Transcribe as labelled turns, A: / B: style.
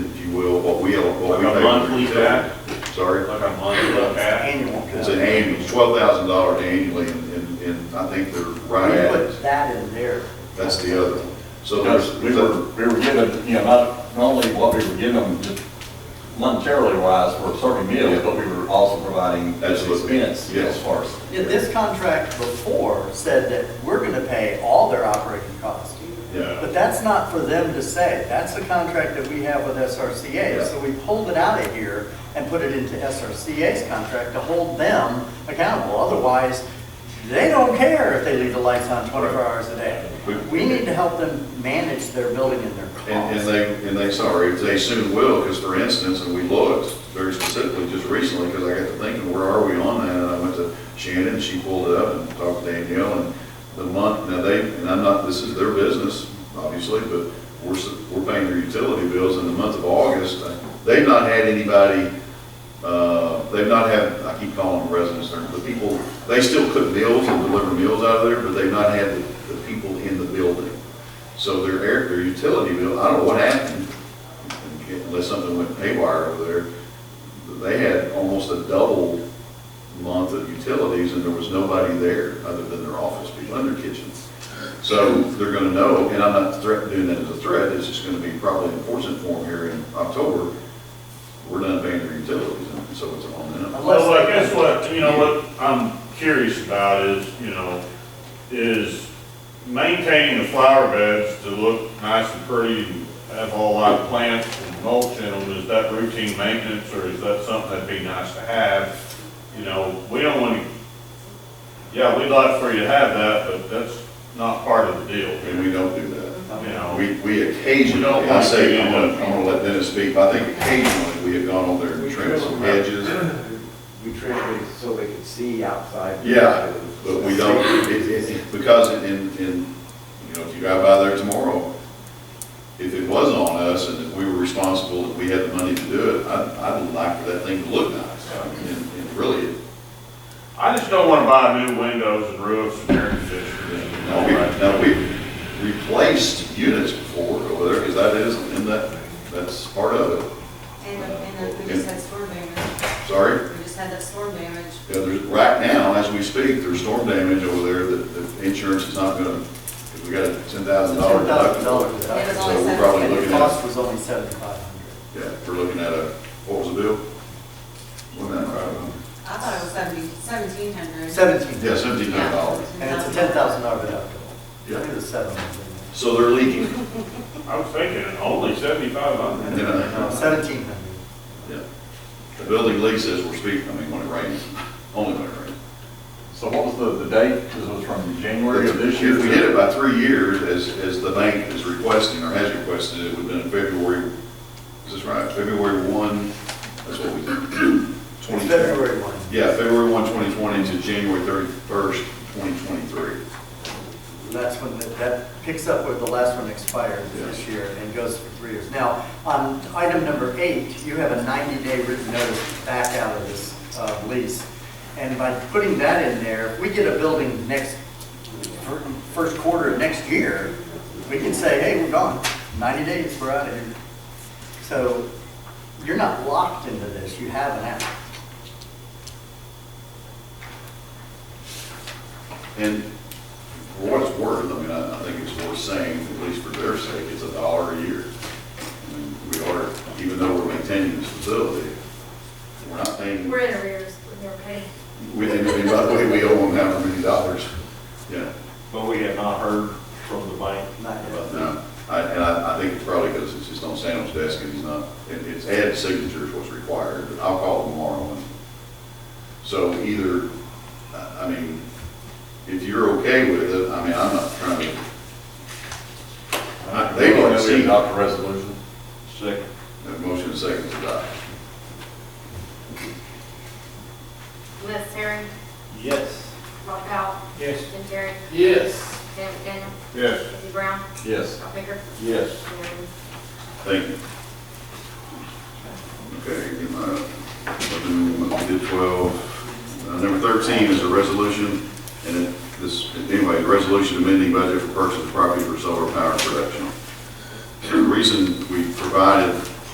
A: what we, what
B: Like
A: we
B: a
A: pay.
B: monthly back?
A: Sorry?
B: Like a month, okay?
C: Annual.
A: It's an annual, twelve thousand dollars annually, and, and- and I think they're right
C: We
A: at it.
C: put that in there.
A: That's the other. one. So there's,
D: Because we were, we were given, you know, not, not only what we were given just monetarily wise for serving meals, but we were also providing as
A: Absolutely.
D: expense
A: Yes.
D: as far as.
C: Yeah, This contract before said that we're going to pay all their operating costs.
A: yeah,
C: But that's not for them to say. That's the contract that we have with SRCA.
A: Yeah.
C: So we pulled it out of here and put it into SRCA's contract to hold them accountable. Otherwise, they don't care if they leave the lights on 24
A: Right.
C: hours a day.
A: We-
C: We need to help them manage their building and their costs.
A: and, and they, and they, sorry, they soon will, because for instance, and we looked very specifically just recently, because I got to thinking, where are we on that? And I went to Shannon, and she pulled it up and talked to Danielle, and the month, now they, and I'm not, this is their business, obviously, but we're, s- we're paying their utility bills in the month of August. They've not had anybody, uh, they've not had, I keep calling them residents, they're- the people, they still cook meals and deliver meals out of there, but they've not had the, the people in the building. So their air, their utility bill, I don't know what happened, unless something went haywire over there. They had almost a double month of utilities and there was nobody there other than their office people and their kitchens. So they're gonna know, and I'm not threat, doing that as a threat, it's just gonna be probably enforcement form here in October. We're done paying their utilities and so it's on them.
B: Well, I guess what, you know, what I'm curious about is, you know, is maintaining the flower beds to look nice and pretty and have all our plants and mulch in them, is that routine maintenance or is that something that'd be nice to have? You know, we don't want to, yeah, we'd like for you to have that, but that's not part of the deal,
A: And we don't do that.
B: you know?
A: Uh, We, we occasionally, I say, I'm gonna, I'm gonna let Dennis speak, but I think occasionally we have gone over there and trimmed some hedges,
E: We trimmed it so they could see outside.
A: Yeah, but we don't, it, it, because in, in, you know, if you drive by there tomorrow, if it was on us and if we were responsible, if we had the money to do it, I, I would like for that thing to look nice. I mean, and, and really,
B: I just don't want to buy new windows and roofs and air conditioning and all
A: now we,
B: that.
A: now we've replaced units before over there, because that is, and that, that's part of it.
F: And, and then we just had storm damage,
A: Sorry?
F: we just had that storm damage.
A: Yeah, there's, right now, as we speak, there's storm damage over there that, that insurance is not gonna, we got a ten thousand dollar deductible.
C: $10,000
F: It was
C: deductible.
F: only
A: So we're
F: seven
A: probably
F: hundred.
C: The
A: looking
C: cost was only 7,500.
A: Yeah, we're looking at a, what was the bill? Wasn't that right?
F: I thought it was seventy, seventeen hundred.
C: 17.
A: Yeah, seventeen hundred dollars.
C: And it's a ten thousand dollar deductible.
A: Yeah.
C: Look at the seven hundred.
A: So they're leaking,
B: I was thinking only seventy-five hundred.
A: you know,
C: Seventeen hundred.
A: yeah. The building lease says we're speaking, I mean, when it rains, only when it rains.
D: So what was the, the date? This was from January of this year?
A: If we did it by three years, as, as the bank is requesting or has requested, it would have been in February, is this right, February one, that's what we did. 20.
C: February one.
A: Yeah, February 1, 2020 to January 31st, 2023.
C: That's when, the- that picks up where the last one expired this
A: Yes.
C: year and goes for three years. Now, on item number eight, you have a ninety-day written notice back out of this uh, lease. And by putting that in there, if we get a building next, fir- first quarter of next year, we can say, hey, we're gone. Ninety days, we're out of here. So you're not locked into this, you have an out.
A: And for what it's worth, I mean, I I think it's worth saying, at least for their sake, it's a dollar a year. I mean, We are, even though we're maintaining this facility, we're not paying,
G: We're in arrears, we're never paid.
A: we, and and by the way, we owe them however many dollars. Yeah,
H: But we have not heard from the bank.
C: Not yet.
A: but no, I- and I, I think it's probably because it's just on Sam's desk and he's not, it- it's add signatures what's required, but I'll call tomorrow. and- So either, I I mean, if you're okay with it, I mean, I'm not trying to I- they didn't see-
D: Adopt a resolution.
H: Second.
A: Have a motion and a second to adopt.
G: Liz Terry,
H: Yes.
G: Rob Powell,
H: Yes.
G: Jim Terry,
H: Yes.
G: Dan McDaniel,
B: Yes.
G: Izzy Brown,
D: Yes.
G: Scott Baker,
H: Yes.
G: Jim Irvin.
A: Thank you. Okay, get my, I'll do what we did 12. Uh, Number 13 is a resolution, and it- this, anyway, the resolution amending budget for purchase of property for solar power production. The reason we provided